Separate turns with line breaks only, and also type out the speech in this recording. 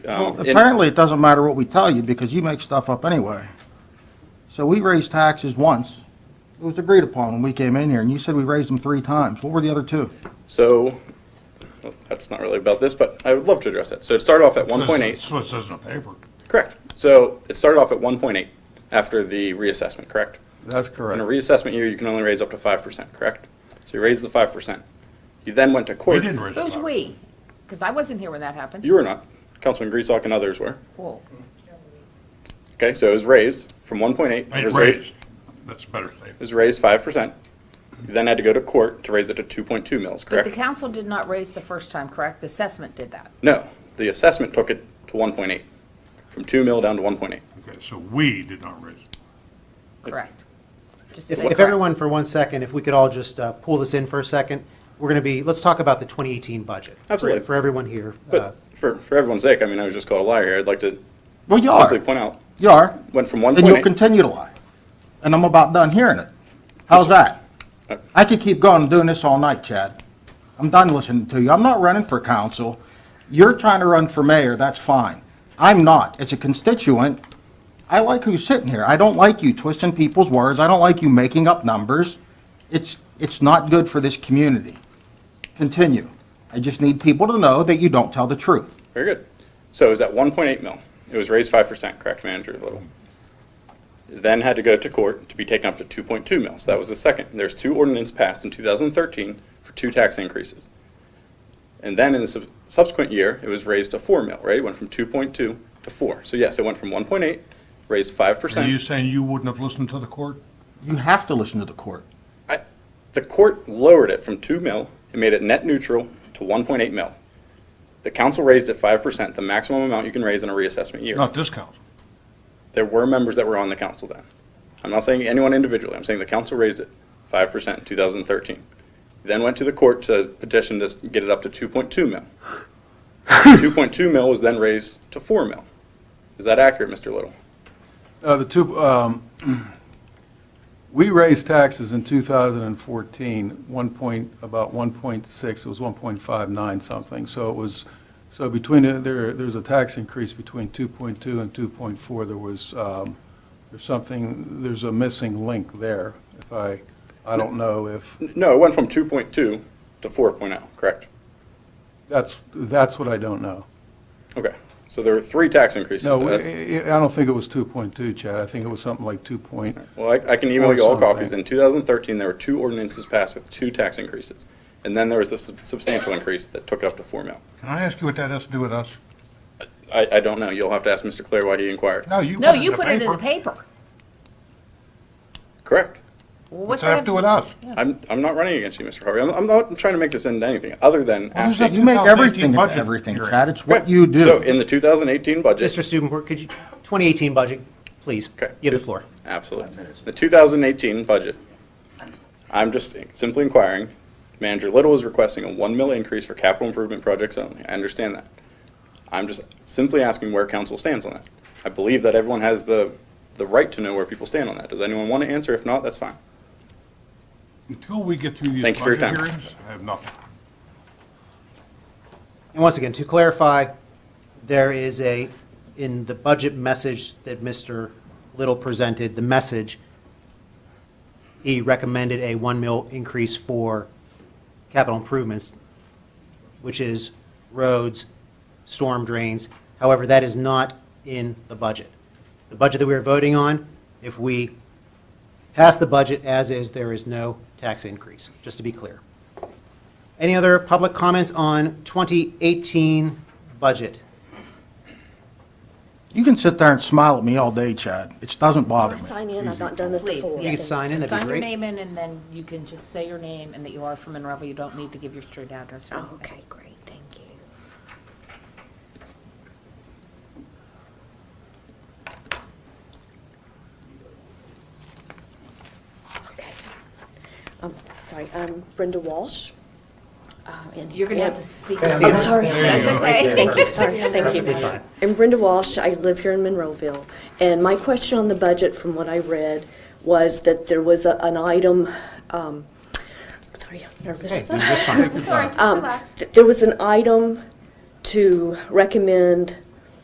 Um,
Well,
and-
apparently, it doesn't matter what we tell you, because you make stuff up anyway. So we raised taxes once. It was agreed upon when we came in here, and you said we raised them three times. What were the other two?
So, well, that's not really about this, but I would love to address that. So it started off at one point eight.
That's what it says in the paper.
Correct. So it started off at one point eight after the reassessment, correct?
That's
In a
correct.
reassessment year, you can only raise up to five percent, correct? So you raised the five percent. You then went to
We
court.
didn't raise the
Who's
power.
we? Because I wasn't here when that happened.
You were not. Councilman Griesok and others were.
Cool.
Okay, so it was raised from one point eight.
It raised. That's a better
It
statement.
was raised five percent. You then had to go to court to raise it to two point two mils,
But the
correct?
council did not raise the first time, correct? The assessment did that.
No, the assessment took it to one point eight, from two mil down to one point eight.
Okay, so we did not raise it.
Correct. Just
If,
say
if
correct.
everyone, for one second, if we could all just uh, pull this in for a second, we're going to be, let's talk about the 2018 budget. for-
Absolutely.
For everyone here. Uh,
But for, for everyone's sake, I mean, I was just called a liar here. I'd like to
Well, you
simply
are.
point out,
You are.
went from one
And you'll
point eight.
continue to lie. And I'm about done hearing it. How's that?
Uh,
I could keep going and doing this all night, Chad. I'm done listening to you. I'm not running for council. You're trying to run for mayor, that's fine. I'm not. As a constituent, I like who's sitting here. I don't like you twisting people's words. I don't like you making up numbers. It's, it's not good for this community. Continue. I just need people to know that you don't tell the truth.
Very good. So it was at one point eight mil. It was raised five percent, correct, Manager Little? Then had to go to court to be taken up to two point two mil. So that was the second. And There's two ordinances passed in two thousand and thirteen for two tax increases. And then in the sub- subsequent year, it was raised to four mil, right? It went from two point two to four. So yes, it went from one point eight, raised five
Are
percent.
you saying you wouldn't have listened to the court?
You have to listen to the court.
I, the court lowered it from two mil and made it net neutral to one point eight mil. The council raised it five percent, the maximum amount you can raise in a reassessment year.
Not this council.
There were members that were on the council then. I'm not saying anyone individually, I'm saying the council raised it five percent in two thousand and thirteen. Then went to the court to petition to s- get it up to two point two mil. Two point two mil was then raised to four mil. Is that accurate, Mr. Little?
Uh, The two, um, we raised taxes in 2014, one point, about 1.6, it was 1.59 something. So it was, so between, uh, there, there's a tax increase between 2.2 and 2.4. There was, um, there's something, there's a missing link there. If I, I don't know if,
N- No, it went from two point two to four oh, correct?
that's, that's what I don't know.
Okay, so there were three tax increases.
No, I
That's-
I- I don't think it was 2.2, Chad. I think it was something like 2 point,
Well, I, I can email
Or
you all
something.
copies. In 2013, there were two ordinances passed with two tax increases. And then there was a sub- substantial increase that took it up to four mil.
Can I ask you what that has to do with us?
I, I don't know. You'll have to ask Mr. Claire why he inquired.
No, you
No,
put it in
you
the
put it in the
paper.
paper.
Correct.
Well,
What's
what's
that have to do with us?
I'm, I'm not running against you, Mr. Harvey. I'm, I'm not trying to make this into anything other than
does that
asking.
You make
2018
everything into
budget
everything,
hearing.
Chad. It's what you do.
So in the 2018 budget.
Mr. Stubenberg, could you, 2018 budget, please.
Okay.
You have the floor.
Absolutely. The 2018 budget, I'm just simply inquiring, Manager Little is requesting a 1 mil increase for capital improvement projects only. I understand that. I'm just simply asking where council stands on that. I believe that everyone has the, the right to know where people stand on that. Does anyone want to answer? If not, that's fine.
Until we get through these
Thank you for your
budget
time.
hearings, I have nothing.
And once again, to clarify, there is a, in the budget message that Mr. Little presented, the message, he recommended a one mil increase for capital improvements, which is roads, storm drains. However, that is not in the budget. The budget that we are voting on, if we pass the budget as is, there is no tax increase, just to be clear. Any other public comments on 2018 budget?
You can sit there and smile at me all day, Chad. It doesn't bother me.
Sign in, I've not done this
Please,
before.
You
yeah.
could sign in, that'd be
Sign your
great.
name in, and then you can just say your name and that you are from Monroeville. You don't need to give your street address. or
Oh,
anything.
okay, great, thank you. Okay. Um, sorry, I'm Brenda Walsh. Uh, and-
You're going to have to speak.
see
I'm
it.
sorry.
That's okay.
Thank you, sorry, thank you. I'm Brenda Walsh, I live here in Monroeville, and my question on the budget, from what I read, was that there was a- an item, um, sorry, I'm nervous. Um,
Just fine.
Sorry, just relax.
Th- There was an item to recommend